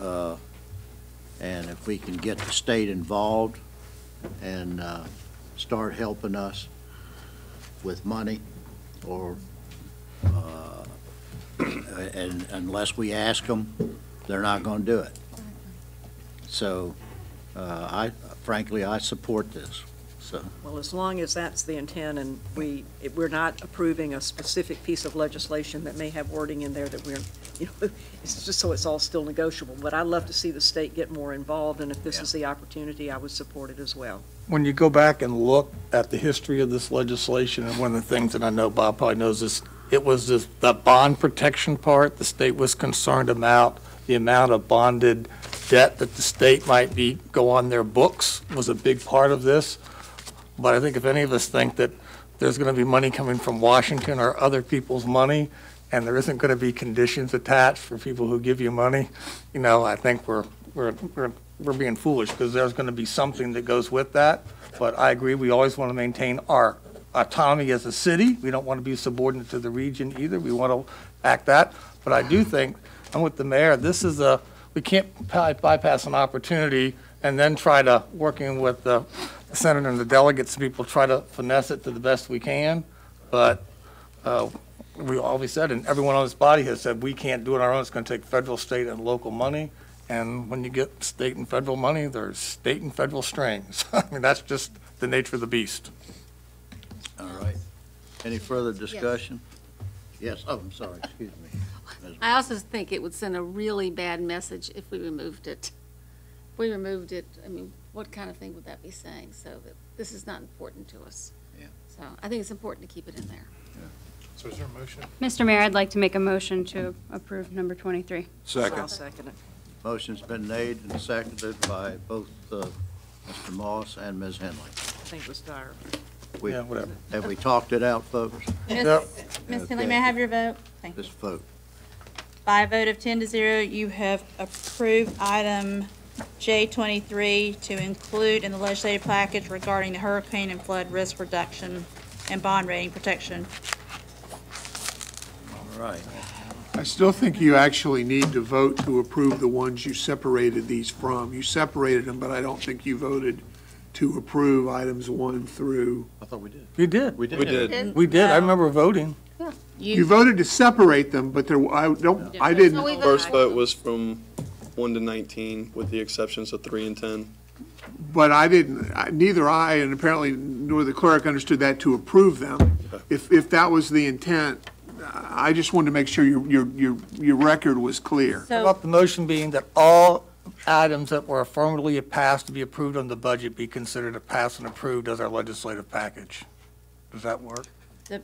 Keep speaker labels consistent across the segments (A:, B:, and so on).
A: uh, and if we can get the state involved and uh, start helping us with money, or, uh, and unless we ask them, they're not going to do it. So uh, I, frankly, I support this, so.
B: Well, as long as that's the intent and we, it- we're not approving a specific piece of legislation that may have wording in there that we're, you know, it's just so it's all still negotiable. But I'd love to see the state get more involved, and if this is the opportunity, I would support it as well.
C: When you go back and look at the history of this legislation, and one of the things that I know Bob probably knows is, it was this, the bond protection part, the state was concerned about, the amount of bonded debt that the state might be, go on their books was a big part of this. But I think if any of us think that there's gonna be money coming from Washington or other people's money, and there isn't gonna be conditions attached for people who give you money, you know, I think we're, we're, we're we're being foolish because there's going to be something that goes with that. But I agree, we always want to maintain our autonomy as a city. We don't want to be subordinate to the region either. We want to act that. But I do think, I'm with the mayor, this is a, we can't by- bypass an opportunity and then try to, working with the senator and the delegates, people try to finesse it to the best we can. But uh, we always said, and everyone on this body has said, we can't do it on our own. It's going to take federal, state, and local money. And when you get state and federal money, there's state and federal strings. I mean, that's just the nature of the beast.
A: All right. Any further discussion? Yes, oh, I'm sorry, excuse me.
D: I also think it would send a really bad message if we removed it. If we removed it, I mean, what kind of thing would that be saying? So that this is not important to us.
A: Yeah.
D: So I think it's important to keep it in there.
E: So is there a motion?
F: Mr. Mayor, I'd like to make a motion to approve number 23.
B: I'll second it.
A: Motion's been made and seconded by both uh, Mr. Moss and Ms. Henley.
B: I think it was dire.
A: We-
C: Yeah, whatever.
A: Have we talked it out, folks?
C: Yep.
G: Ms. Finley,
A: Okay.
G: may I have your vote? Thank you.
A: This vote.
G: By a vote of 10 to 0, you have approved item J23 to include in the legislative package regarding the hurricane and flood risk reduction and bond rating protection.
A: All right.
E: I still think you actually need to vote to approve the ones you separated these from. You separated them, but I don't think you voted to approve items one through.
A: I thought we did.
C: We did.
A: We did.
C: We did. I remember voting.
E: You voted to separate them, but there, I don't, I didn't.
D: So we vote-
H: First vote was from one to nineteen, with the exceptions of three and ten.
E: But I didn't, I- neither I, and apparently nor the clerk understood that to approve them. If, if that was the intent, I just wanted to make sure your, your, your, your record was clear.
C: How
G: So
C: About the motion being that all items that were affirmatively passed to be approved on the budget be considered a pass and approved as our legislative package. Does that work?
G: the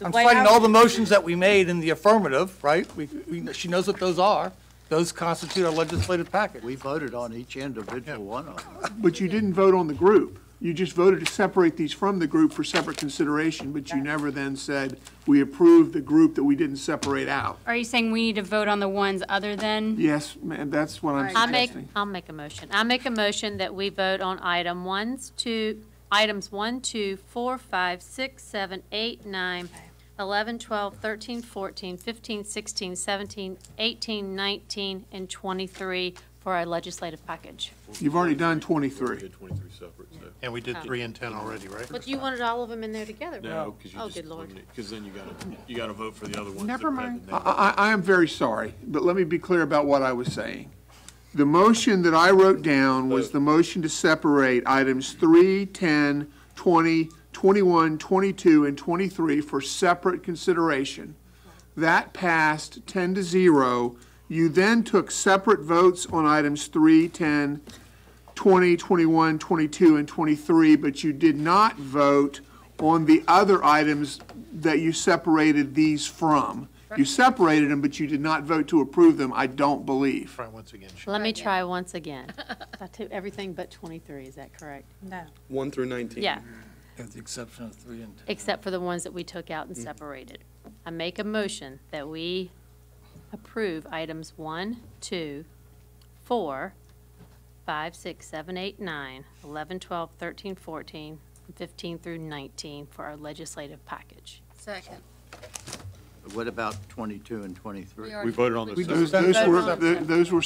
G: the
C: I'm
G: way
C: citing
G: I
C: all the motions that we made in the affirmative, right? We, we, she knows what those are. Those constitute our legislative package.
A: We voted on each individual one of them.
E: But you didn't vote on the group. You just voted to separate these from the group for separate consideration, but you never then said, we approve the group that we didn't separate out.
F: Are you saying we need to vote on the ones other than?
E: Yes, ma'am, that's what I'm
I: I make,
E: suggesting.
I: I'll make a motion. I make a motion that we vote on item ones, two, items one, two, four, five, six, seven, eight, nine, eleven, twelve, thirteen, fourteen, fifteen, sixteen, seventeen, eighteen, nineteen, and twenty-three for our legislative package.
E: You've already done 23.
J: And we did three and 10 already, right?
I: But you wanted all of them in there together, right?
H: No, because you
I: Oh,
H: just
I: good lord.
H: eliminate, because then you gotta, you gotta vote for the other ones.
I: Never mind.
E: I, I, I am very sorry, but let me be clear about what I was saying. The motion that I wrote down was the motion to separate items 3, 10, 20, 21, 22, and 23 for separate consideration. That passed 10 to 0. You then took separate votes on items 3, 10, 20, 21, 22, and 23, but you did not vote on the other items that you separated these from. You separated them, but you did not vote to approve them, I don't believe.
J: Try once again. Sharon.
I: Let me try once again. I took everything but twenty-three, is that correct?
G: No.
H: One through nineteen.
I: Yeah.
C: With the exception of three and
I: except for the ones that we took out and separated. I make a motion that we approve items one, two, four, five, six, seven, eight, nine, eleven, twelve, thirteen, fourteen, and fifteen through nineteen for our legislative package.
D: Second.
A: What about 22 and 23?
D: We are-
E: Those those were, those were